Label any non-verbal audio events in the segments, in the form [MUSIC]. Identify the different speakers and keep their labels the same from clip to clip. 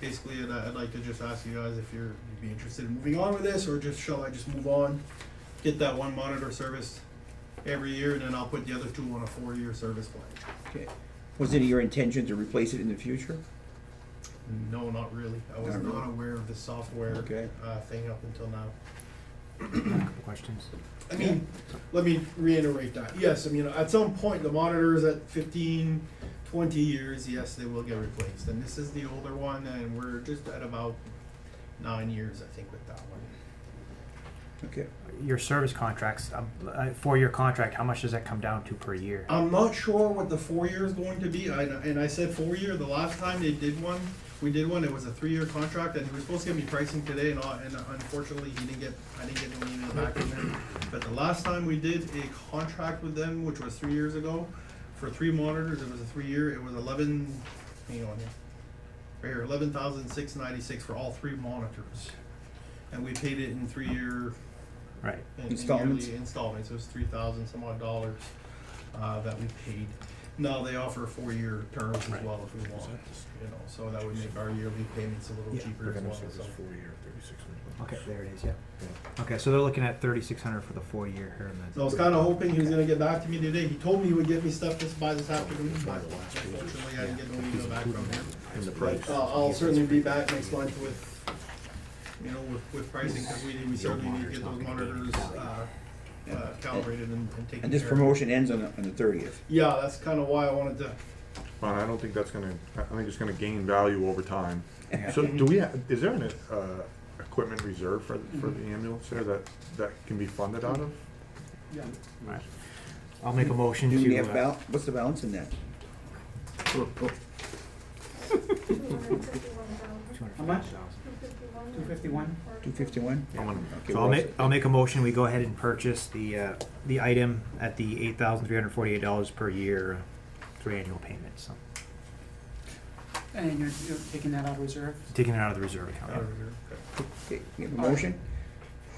Speaker 1: basically, and I- I'd like to just ask you guys if you're, you'd be interested in moving on with this, or just, shall I just move on? Get that one monitor service every year, and then I'll put the other two on a four-year service plan.
Speaker 2: Okay. Was it your intention to replace it in the future?
Speaker 1: No, not really, I was
Speaker 2: Not really.
Speaker 1: not aware of the software,
Speaker 2: Okay.
Speaker 1: uh, thing up until now.
Speaker 3: Questions?
Speaker 1: I mean, let me reiterate that. Yes, I mean, at some point, the monitors at 15, 20 years, yes, they will get replaced. And this is the older one, and we're just at about nine years, I think, with that one.
Speaker 2: Okay.
Speaker 3: Your service contracts, um, uh, four-year contract, how much does that come down to per year?
Speaker 1: I'm not sure what the four year is going to be. I, and I said four year. The last time they did one, we did one. It was a three year contract, and he was supposed to give me pricing today, and, all, and uh, unfortunately, he didn't get. I didn't get no email back from him. But the last time we did a contract with them, which was three years ago, for three monitors, it was a three year. It was eleven. Hang on here. Right here, eleven thousand six ninety six for all three monitors, and we paid it in three year
Speaker 3: Right.
Speaker 1: in- in
Speaker 2: Installments?
Speaker 1: yearly Installments, it was three thousand some odd dollars, uh, that we paid. Now, they offer four-year terms as
Speaker 3: Right.
Speaker 1: well if we want, you know, so that would make our yearly payments a little
Speaker 3: Yeah.
Speaker 1: cheaper as well, so.
Speaker 3: Okay, there it is, yeah. Okay, so they're looking at thirty-six hundred for the four-year here and
Speaker 1: So I was kinda hoping he was gonna get back to me today, he told me he would get me stuff this, by this afternoon, but unfortunately, I didn't get no email back from him.
Speaker 4: And the
Speaker 1: But, uh, I'll certainly be back next month with, you know, with, with pricing, cause we, we certainly need to get those monitors, uh, uh, calibrated and, and taken care of.
Speaker 2: And this promotion ends on the, on the thirtieth.
Speaker 1: Yeah, that's kinda why I wanted to
Speaker 4: But I don't think that's gonna, I I think it's gonna gain value over time. So do we, ha- is there an, uh, equipment reserve for, for the ambulance there that, that can be funded out of?
Speaker 3: Right. I'll make a motion
Speaker 2: Do we have
Speaker 3: to, uh,
Speaker 2: bal, what's the balance in that?
Speaker 5: How much?
Speaker 6: Two fifty-one?
Speaker 2: Two fifty-one?
Speaker 4: I'm gonna-
Speaker 2: Okay,
Speaker 3: so
Speaker 2: we're
Speaker 3: I'll
Speaker 2: all
Speaker 3: make, I'll make a motion, we go ahead and purchase the, uh, the item at the eight thousand three hundred forty-eight dollars per year, uh, three annual payments, so.
Speaker 5: And you're, you're taking that out of reserve?
Speaker 3: Taking it out of the reserve account.
Speaker 1: Out of here.
Speaker 2: set. Okay, we have a motion?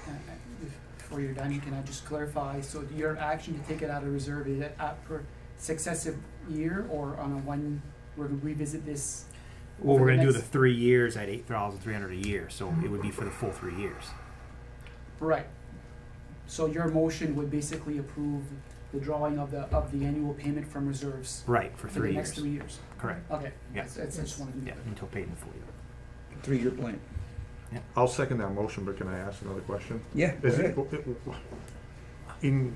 Speaker 5: Uh, uh, Before you're done, can I just clarify, so your action to take it out of reserve, is it up per successive year or on a one, we're gonna revisit this?
Speaker 3: Well,
Speaker 5: for
Speaker 3: we're
Speaker 5: the
Speaker 3: gonna do the
Speaker 5: next-
Speaker 3: three years at eight thousand three hundred a year, so it would be for the full three years.
Speaker 5: Right. So your motion would basically approve the drawing of the, of the annual payment from reserves
Speaker 3: Right, for
Speaker 5: for the
Speaker 3: three
Speaker 5: next
Speaker 3: years.
Speaker 5: three years?
Speaker 3: Correct,
Speaker 5: Okay,
Speaker 3: Yeah.
Speaker 5: that's, that's, I just wanted to.
Speaker 3: yeah, until paid in full.
Speaker 2: Three-year plan.
Speaker 4: I'll second that motion, but can I ask another question?
Speaker 2: Yeah.
Speaker 4: Is it,
Speaker 2: okay.
Speaker 4: in,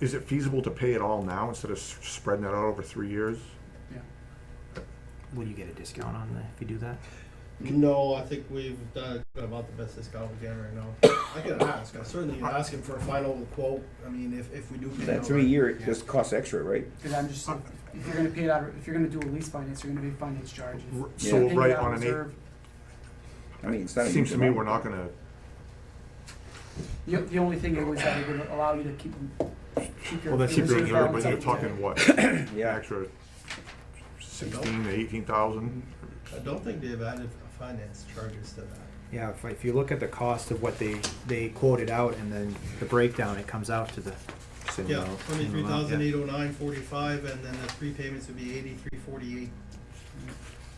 Speaker 4: is it feasible to pay it all now instead of s- spreading that out over three years?
Speaker 3: Will you get a discount on that if you do that?
Speaker 1: No, I think we've done about the best discount we can right now. I can ask, I certainly can ask him for a final quote, I mean, if, if we do. pay
Speaker 2: That
Speaker 1: it
Speaker 2: three-year, it just costs extra, right?
Speaker 5: Cause I'm just, if you're gonna pay it out, of- if you're gonna do a lease finance, you're gonna be finance charges.
Speaker 4: R-
Speaker 2: Yeah.
Speaker 4: So
Speaker 5: Paying it
Speaker 4: right
Speaker 5: out of
Speaker 4: on an
Speaker 5: reserve,
Speaker 4: eight,
Speaker 2: I mean, it's not. a
Speaker 4: seems
Speaker 2: huge
Speaker 4: to me
Speaker 2: amount.
Speaker 4: we're not gonna,
Speaker 5: The, the only thing it was that it would allow you to keep, keep your.
Speaker 3: Well, that's
Speaker 5: your
Speaker 3: keep your
Speaker 5: reserve
Speaker 4: but
Speaker 5: balance
Speaker 4: you're
Speaker 5: up.
Speaker 4: talking what,
Speaker 2: Yeah,
Speaker 4: extra sixteen to eighteen thousand?
Speaker 1: I don't think they've added finance charges to that.
Speaker 3: Yeah, if, if you look at the cost of what they, they quoted out and then the breakdown, it comes out to the. same
Speaker 1: Yeah,
Speaker 3: amount.
Speaker 1: twenty-three thousand
Speaker 3: Yeah.
Speaker 1: eight oh nine forty-five, and then the three payments would be eighty-three forty-eight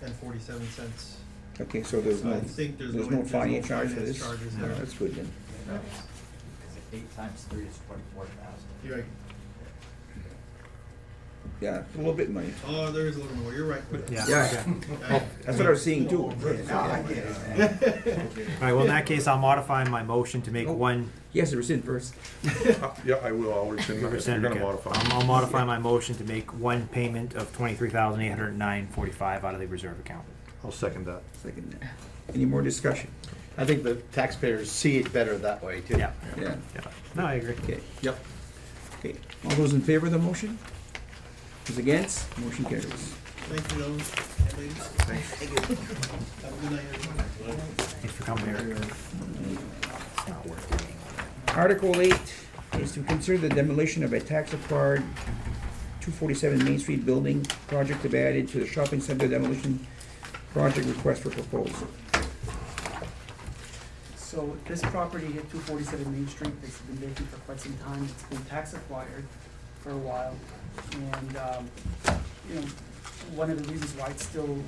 Speaker 1: and forty-seven cents.
Speaker 2: okay, so there's
Speaker 1: So I
Speaker 2: no,
Speaker 1: think there's
Speaker 2: there's
Speaker 1: no-
Speaker 2: no
Speaker 1: there's no
Speaker 2: finance charge for
Speaker 1: finance
Speaker 2: this?
Speaker 1: charges
Speaker 2: No,
Speaker 1: there.
Speaker 2: That's good then.
Speaker 7: Because eight times three is twenty-four thousand.
Speaker 1: You're right,
Speaker 2: Yeah, a little bit of money.
Speaker 1: oh, there is a little more, you're right.
Speaker 3: Yeah, okay.
Speaker 1: Okay.
Speaker 2: That's what I was seeing too.
Speaker 3: All right, well, in that case, I'll modify my motion to make
Speaker 2: Oh.
Speaker 3: one
Speaker 2: Yes, it was in first.
Speaker 4: [LAUGHS] Yeah, I will, I'll rescind that, if you're
Speaker 3: percent.
Speaker 4: gonna modify.
Speaker 3: I'll I'll modify my motion to make one payment of twenty-three thousand eight hundred nine forty-five out of the reserve account.
Speaker 4: I'll second that.
Speaker 2: Second that. Any more discussion?
Speaker 8: I think the taxpayers see it better that way, too.
Speaker 3: Yeah,
Speaker 2: Yeah,
Speaker 3: yeah. No, I agree.
Speaker 2: okay.
Speaker 8: Yep.
Speaker 2: Okay, all those in favor of the motion? Those against? Motion carries.
Speaker 1: Thank you, gentlemen and ladies. Have a good night, everyone.
Speaker 3: Thanks for coming here. It's not worth it.
Speaker 2: Article eight is to consider the demolition of a tax acquired two forty-seven Main Street building project to be added to the shopping center demolition project request for proposal.
Speaker 5: So this property at two forty-seven Main Street, that's been vacant for quite some time, it's been tax acquired for a while. And, um, you know, one of the reasons why it's still